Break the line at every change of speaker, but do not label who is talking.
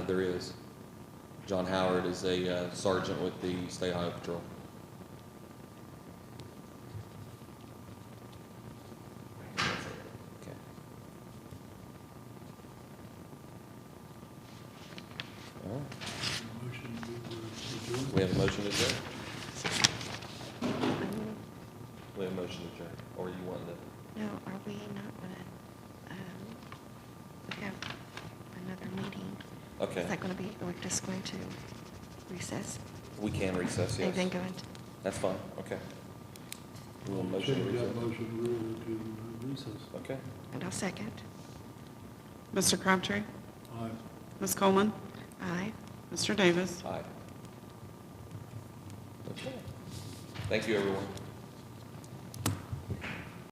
there is. John Howard is a uh, sergeant with the State Highway Patrol. Okay. All right.
Motion to adjourn.
We have a motion to adjourn? We have a motion to adjourn, or you want to?
No, are we not gonna, um, we have another meeting.
Okay.
Is that gonna be, we're just going to recess?
We can recess, yes.
And then go into,
That's fine, okay. We'll motion to
Change that
recess.
motion rule to recess.
Okay.
and I'll second.
Mr. Crabtree,
Aye.
Ms. Coleman,
Aye.
Mr. Davis.
Aye. Okay. Thank you, everyone.